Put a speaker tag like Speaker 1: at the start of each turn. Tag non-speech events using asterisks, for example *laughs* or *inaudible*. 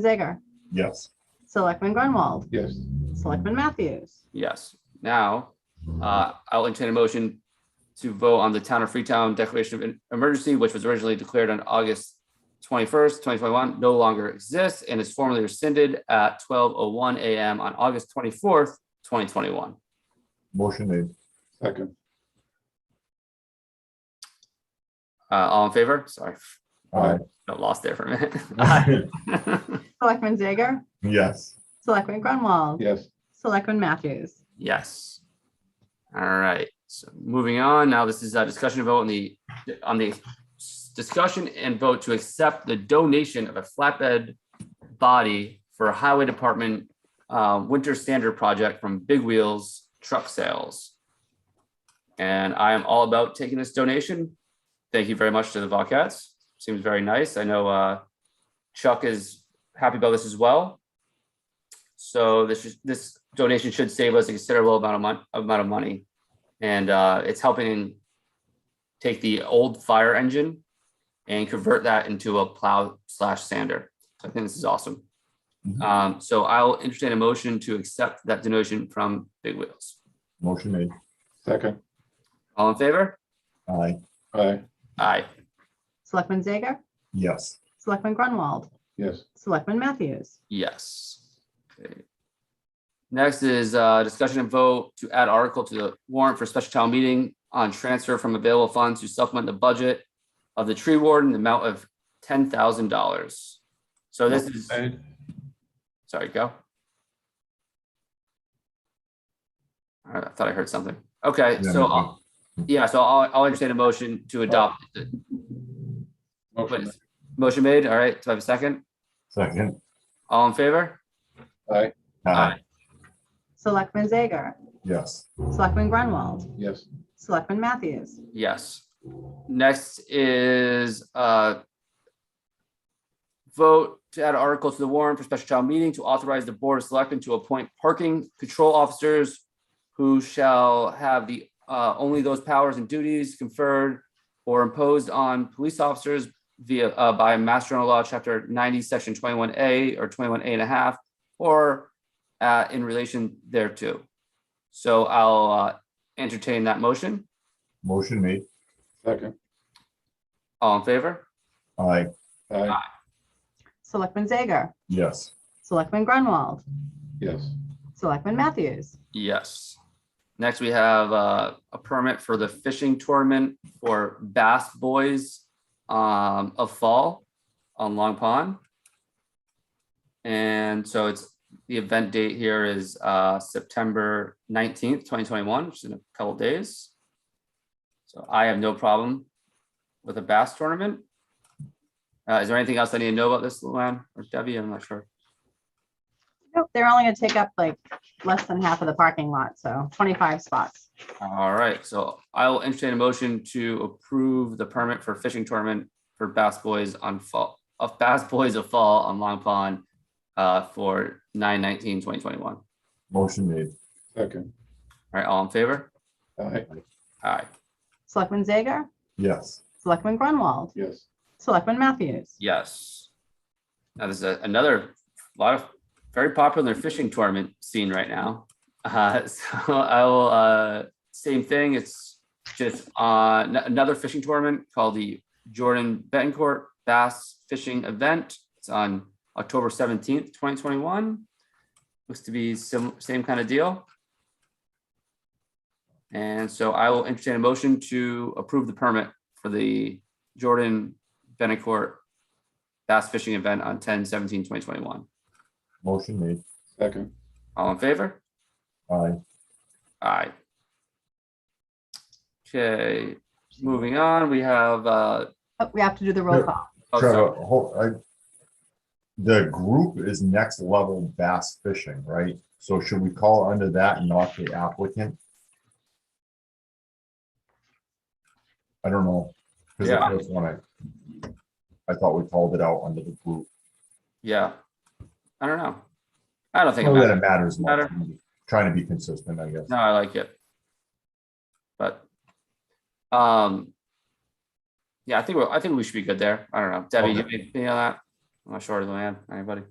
Speaker 1: Zager.
Speaker 2: Yes.
Speaker 1: Selectman Grunwald.
Speaker 2: Yes.
Speaker 1: Selectman Matthews.
Speaker 3: Yes. Now, uh, I'll entertain a motion to vote on the Town of Freetown Declaration of Em- Emergency, which was originally declared on August twenty-first, twenty twenty-one, no longer exists and is formally rescinded at twelve oh one AM on August twenty-fourth, twenty twenty-one.
Speaker 2: Motion made. Second.
Speaker 3: Uh, all in favor? Sorry,
Speaker 2: Aye.
Speaker 3: got lost there for a minute. *laughs*
Speaker 4: Aye.
Speaker 1: Selectman Zager.
Speaker 2: Yes.
Speaker 1: Selectman Grunwald.
Speaker 2: Yes.
Speaker 1: Selectman Matthews.
Speaker 3: Yes. All right, so moving on, now this is a discussion vote on the, on the discussion and vote to accept the donation of a flatbed body for a highway department uh, winter standard project from Big Wheels Truck Sales. And I am all about taking this donation. Thank you very much to the Vaucats. Seems very nice. I know uh, Chuck is happy about this as well. So this is, this donation should save us a considerable amount of mon- amount of money. And uh, it's helping take the old fire engine and convert that into a plow slash sander. So I think this is awesome.
Speaker 2: Mhm.
Speaker 3: Um, so I'll entertain a motion to accept that donation from Big Wheels.
Speaker 2: Motion made. Second.
Speaker 3: All in favor?
Speaker 2: Aye. Aye.
Speaker 3: Aye.
Speaker 1: Selectman Zager.
Speaker 2: Yes.
Speaker 1: Selectman Grunwald.
Speaker 2: Yes.
Speaker 1: Selectman Matthews.
Speaker 3: Yes. Okay. Next is uh discussion and vote to add article to the warrant for special town meeting on transfer from available funds to supplement the budget of the tree warden, in the amount of ten thousand dollars. So this is, sorry, go. All right, I thought I heard something. Okay,
Speaker 2: Yeah,
Speaker 3: so,
Speaker 2: me
Speaker 3: I'll- yeah, so I'll, I'll entertain a motion to adopt. the-
Speaker 5: Motion.
Speaker 3: Motion made, all right, do I have a second?
Speaker 2: Second.
Speaker 3: All in favor?
Speaker 5: Aye,
Speaker 2: Aye.
Speaker 1: Selectman Zager.
Speaker 2: Yes.
Speaker 1: Selectman Grunwald.
Speaker 5: yes,
Speaker 1: Selectman Matthews.
Speaker 3: Yes. Next is uh vote to add article to the warrant for special town meeting to authorize the board of selectmen to appoint parking control officers who shall have the uh only those powers and duties conferred or imposed on police officers via uh by Master General Law, Chapter ninety, Section twenty-one A or twenty-one A and a half, or uh in relation thereto. So I'll uh entertain that motion.
Speaker 2: Motion made.
Speaker 5: second,
Speaker 3: All in favor?
Speaker 2: Aye.
Speaker 5: aye,
Speaker 1: Selectman Zager.
Speaker 2: Yes.
Speaker 1: Selectman Grunwald.
Speaker 5: yes,
Speaker 1: Selectman Matthews.
Speaker 3: Yes. Next, we have uh, a permit for the fishing tournament for Bass Boys um, of Fall on Long Pond. And so it's, the event date here is uh, September nineteenth, twenty twenty-one, which is in a couple days. So I have no problem with a bass tournament. Uh, Is there anything else I need to know about this, Luann or Debbie? I'm not sure.
Speaker 1: Nope, They're only going to take up like less than half of the parking lot, so 25 spots.
Speaker 3: All right, so I will entertain a motion to approve the permit for fishing tournament for Bass Boys on Fall, of Bass Boys of Fall on Long Pond uh, for 9-19-2021. All
Speaker 2: Motion made.
Speaker 5: second,
Speaker 3: right, all in favor?
Speaker 5: aye,
Speaker 3: All right,
Speaker 1: Selectman Zager.
Speaker 2: Yes.
Speaker 1: Selectman Grunwald.
Speaker 5: yes,
Speaker 1: Selectman Matthews.
Speaker 3: yes. Now, this is a- another lot of very popular fishing tournament scene right now. Uh, *laughs* so I will, uh, same thing, it's just, uh, n- another fishing tournament called the Jordan Betancourt Bass Fishing Event. It's on October seventeenth, twenty twenty-one. Looks to be sim- same kind of deal. And so I will entertain a motion to approve the permit for the Jordan Betancourt Bass Fishing Event on 10-17-2021.
Speaker 2: Motion made.
Speaker 5: second,
Speaker 3: All in favor?
Speaker 2: Aye.
Speaker 3: Aye. Okay, moving on, we have, uh,
Speaker 1: Oh, We have to do the roll
Speaker 2: Sure.
Speaker 1: call.
Speaker 3: oh,
Speaker 2: Trevor,
Speaker 3: sorry.
Speaker 2: hold, I. The group is next level bass fishing, right? So should we call under that and not the applicant? I don't know. 'cause the
Speaker 3: Yeah.
Speaker 2: first one I I thought we called it out under the group.
Speaker 3: yeah. I don't know. I don't think it
Speaker 2: Not that
Speaker 3: matters.
Speaker 2: it matters much.
Speaker 3: Matter.
Speaker 2: I'm Trying to be consistent, I guess.
Speaker 3: No, I like it. But, um, yeah, I think, we're- I think we should be good there. I don't know. Debbie, you have anything on that? I'm not sure, Luann, anybody?